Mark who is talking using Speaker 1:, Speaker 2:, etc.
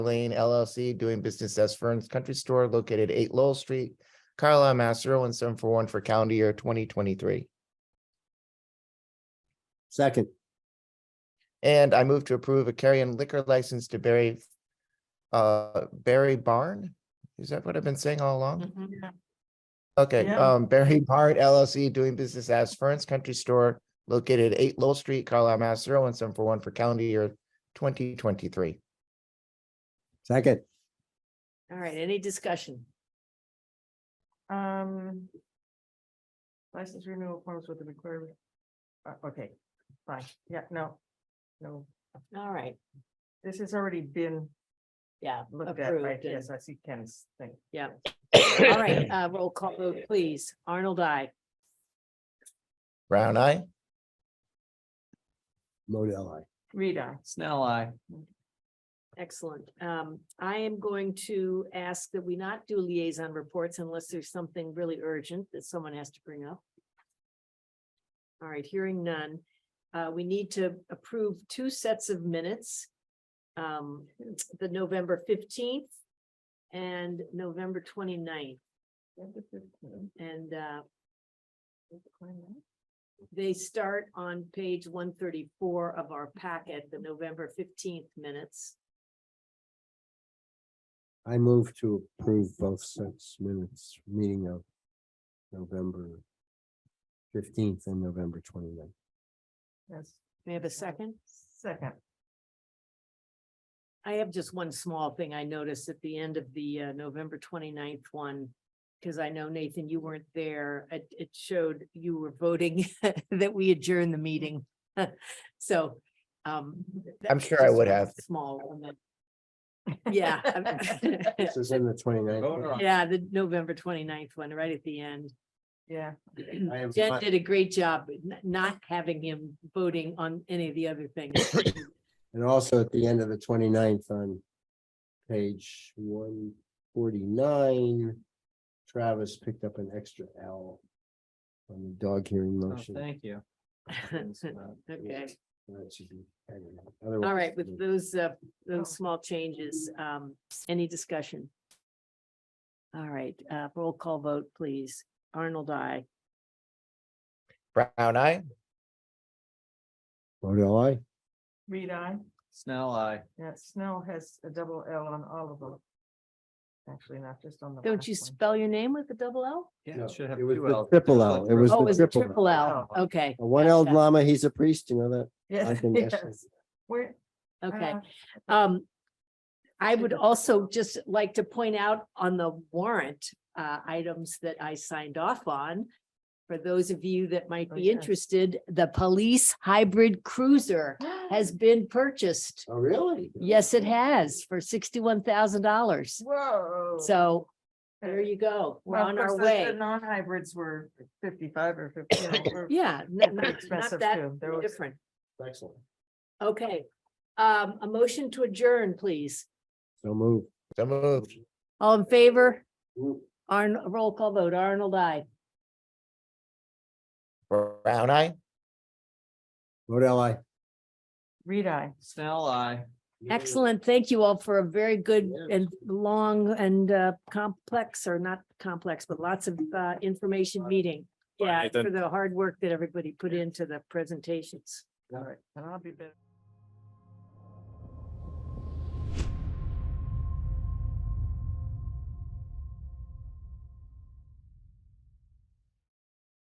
Speaker 1: Lane LLC, doing business as Fern's Country Store located eight Lowell Street, Carlisle, Mass. 01741 for calendar year twenty twenty-three.
Speaker 2: Second,
Speaker 1: And I move to approve a carry and liquor license to Barry, uh, Barry Barn? Is that what I've been saying all
Speaker 3: Um,
Speaker 1: along?
Speaker 4: Mm-hmm.
Speaker 1: Okay,
Speaker 3: Mm-hmm. Yeah.
Speaker 1: um, Barry Bart LLC doing business as Fern's Country Store located at eight Lowell Street, Carlisle, Mass. 01741 for calendar year twenty twenty-three.
Speaker 2: second,
Speaker 4: All right, any discussion?
Speaker 3: Um. License renewal forms with the required. Uh, okay, fine, yeah, no. No,
Speaker 4: All right,
Speaker 3: this has already been
Speaker 4: yeah.
Speaker 3: looked at, right?
Speaker 4: approved and-
Speaker 3: Yes, I see Ken's thing.
Speaker 4: All right, uh, roll call vote, please. Arnold, I.
Speaker 1: Brown eye?
Speaker 2: Modell, I.
Speaker 3: Rita,
Speaker 5: Snell, I.
Speaker 4: Excellent. Um, I am going to ask that we not do liaison reports unless there's something really urgent that someone has to bring up. All right, hearing none. Uh, we need to approve two sets of minutes. Um, the November fifteenth and November 29th. and uh, they start on page one thirty-four of our packet, the November fifteenth minutes.
Speaker 2: I move to approve both sets minutes, meeting of November fifteenth and November 29th.
Speaker 3: Yes,
Speaker 4: May I have a second?
Speaker 3: second,
Speaker 4: I have just one small thing I noticed at the end of the uh, November 29th one. Because I know Nathan, you weren't there. It, it showed you were voting that we adjourn the meeting. So. um,
Speaker 1: I'm
Speaker 4: that's
Speaker 1: sure I
Speaker 4: just
Speaker 1: would
Speaker 4: one
Speaker 1: have.
Speaker 4: Small. one that- Yeah. I'm-
Speaker 2: This is in the 29th.
Speaker 5: Vote or-
Speaker 4: Yeah, the November 29th one, right at the end.
Speaker 3: yeah,
Speaker 2: I am
Speaker 4: Jen
Speaker 2: not-
Speaker 4: did a great job n- not having him voting on any of the other things.
Speaker 2: And also at the end of the 29th on page one forty-nine, Travis picked up an extra L on the dog hearing
Speaker 5: Oh,
Speaker 2: motion.
Speaker 5: Thank you. It's, uh,
Speaker 4: Okay.
Speaker 2: That should be- I don't know. Otherwise,
Speaker 4: All right, with those, uh, those
Speaker 3: Oh.
Speaker 4: small changes, um, any discussion? All right, uh, roll call vote, please. Arnold, I.
Speaker 1: Brown eye?
Speaker 2: Modell, I.
Speaker 3: Rita,
Speaker 5: Snell, I.
Speaker 3: yeah, Snell has a double L on all of them. Actually, not just on the.
Speaker 4: Don't
Speaker 3: last
Speaker 4: you
Speaker 3: one.
Speaker 4: spell your name with a double L?
Speaker 5: Yeah,
Speaker 2: No,
Speaker 5: it should have
Speaker 2: it was
Speaker 5: two
Speaker 2: the
Speaker 5: Ls.
Speaker 2: triple
Speaker 5: Just
Speaker 2: L.
Speaker 5: like
Speaker 2: It was
Speaker 5: the-
Speaker 4: Oh, is it
Speaker 2: triple L.
Speaker 4: triple L?
Speaker 3: Oh.
Speaker 4: Okay,
Speaker 2: A one-eyed
Speaker 4: Gotcha.
Speaker 2: llama, he's a priest, you know that? I
Speaker 3: Yes,
Speaker 2: think that's-
Speaker 3: yes. Where?
Speaker 4: okay.
Speaker 3: uh,
Speaker 4: Um, I would also just like to point out on the warrant, uh, items that I signed off on. For those of you that might
Speaker 3: Oh,
Speaker 4: be
Speaker 3: yes.
Speaker 4: interested, the police hybrid cruiser
Speaker 3: uh,
Speaker 4: has been purchased.
Speaker 2: Oh, really?
Speaker 4: Yes, it has for sixty-one thousand dollars.
Speaker 3: Whoa.
Speaker 4: So there you go. We're
Speaker 3: Well, of
Speaker 4: on
Speaker 3: course,
Speaker 4: our
Speaker 3: the-
Speaker 4: way.
Speaker 3: The non-hybrids were fifty-five or fifty.
Speaker 4: Yeah. n-
Speaker 3: They're
Speaker 4: Not not
Speaker 3: expensive
Speaker 4: that
Speaker 3: too. They're ex-
Speaker 4: different.
Speaker 2: Excellent.
Speaker 4: Okay. Um, a motion to adjourn, please.
Speaker 2: So move.
Speaker 1: So moved.
Speaker 4: All in favor? Arn, roll call vote. Arnold, I.
Speaker 1: Brown eye?
Speaker 2: Modell, I.
Speaker 3: Reed eye.
Speaker 5: Snell, I.
Speaker 4: Excellent. Thank you all for a very good
Speaker 2: Yes.
Speaker 4: and long and uh, complex or not complex, but lots of uh, information meeting. Yeah, for the hard work that everybody put into the presentations.
Speaker 3: All right, and I'll be better.